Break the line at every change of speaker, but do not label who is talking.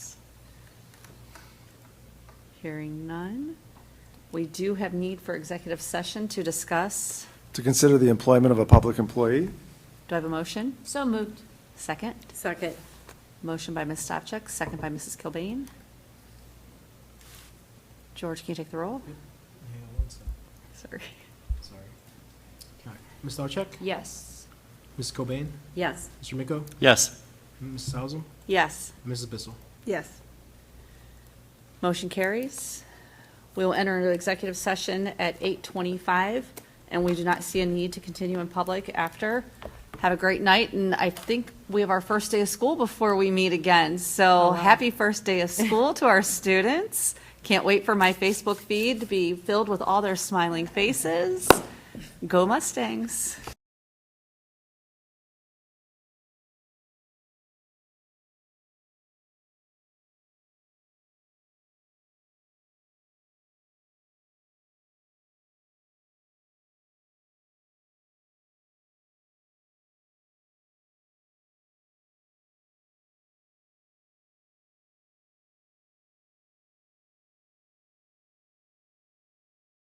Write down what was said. Hearing none. We do have need for executive session to discuss.
To consider the employment of a public employee,
Do I have a motion?
So moved.
Second?
Second.
Motion by Ms. Stavcek, second by Mrs. Kilbane. George, can you take the roll?
Yeah, one sec,
Sorry.
sorry. All right, Ms. Starcheck?
Yes.
Ms. Cobain?
Yes.
Mr. Miko?
Yes.
Mrs. Hausum?
Yes.
Mrs. Bissell?
Yes.
Motion carries. We will enter into executive session at 8:25, and we do not see a need to continue in public after. Have a great night, and I think we have our first day of school before we meet again. So happy first day of school to our students. Can't wait for my Facebook feed to be filled with all their smiling faces. Go Mustangs.